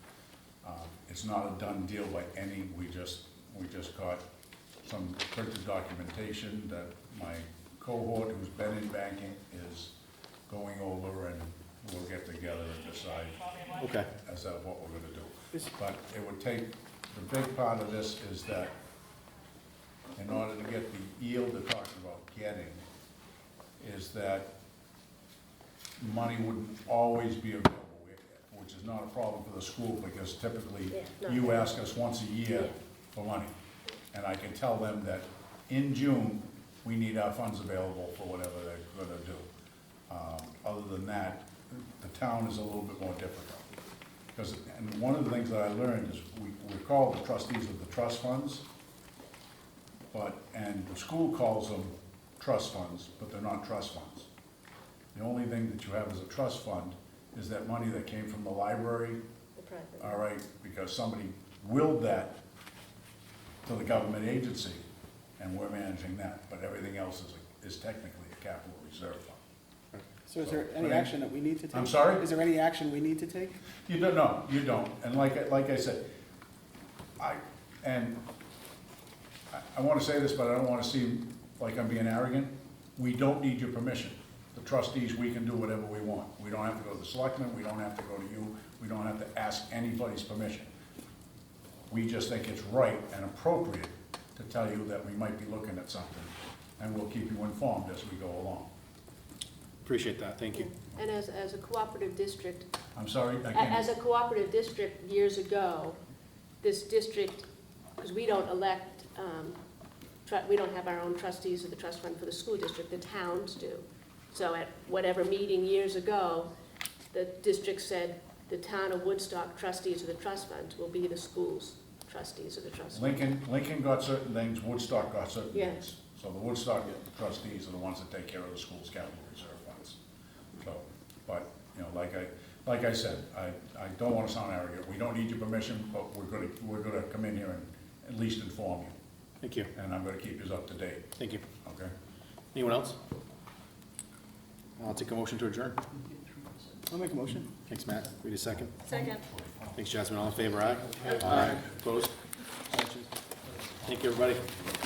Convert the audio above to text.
It's not a done deal by any, we just, we just got some printed documentation that my cohort who's been in banking is going over and we'll get together and decide Okay. as to what we're gonna do. Is- But it would take, the big part of this is that in order to get the yield they're talking about getting, is that money wouldn't always be available, eh, which is not a problem for the school, because typically Yeah, no. you ask us once a year Yeah. for money. And I can tell them that in June, we need our funds available for whatever they're gonna do. Um, Other than that, the town is a little bit more difficult. Because, and one of the things that I learned is we, we call the trustees of the trust funds, but, and the school calls them trust funds, but they're not trust funds. The only thing that you have as a trust fund is that money that came from the library, The private. all right, because somebody willed that to the government agency, and we're managing that, but everything else is, is technically a capital reserve fund. So is there any Right. action that we need to take? I'm sorry? Is there any action we need to take? You don't, no, you don't, and like, I- like I said, I, and I, I wanna say this, but I don't wanna seem like I'm being arrogant, we don't need your permission. The trustees, we can do whatever we want, we don't have to go to the selectmen, we don't have to go to you, we don't have to ask anybody's permission. We just think it's right and appropriate to tell you that we might be looking at something, and we'll keep you informed as we go along. Appreciate that, thank you. And as, as a cooperative district, I'm sorry, I a- can't. as a cooperative district years ago, this district, because we don't elect, um, tru- we don't have our own trustees of the trust fund for the school district, the towns do. So at whatever meeting years ago, the district said, the town of Woodstock trustees of the trust fund will be the school's trustees of the trust fund. Lincoln, Lincoln got certain things, Woodstock got certain Yeah. things. So the Woodstock trustees are the ones that take care of the school's capital reserve funds. So, but, you know, like I, like I said, I, I don't wanna sound arrogant, we don't need your permission, but we're gonna, we're gonna come in here and at least inform you, Thank you, and I'm gonna keep you up to date, thank you. okay? Anyone else? I'll take a motion to adjourn. I'll make a motion. Thanks, Matt. Wait a second. Second. Thanks, Jasmine. All in favor, aye? Aye. Opposed? Abstentions? Thank you, everybody.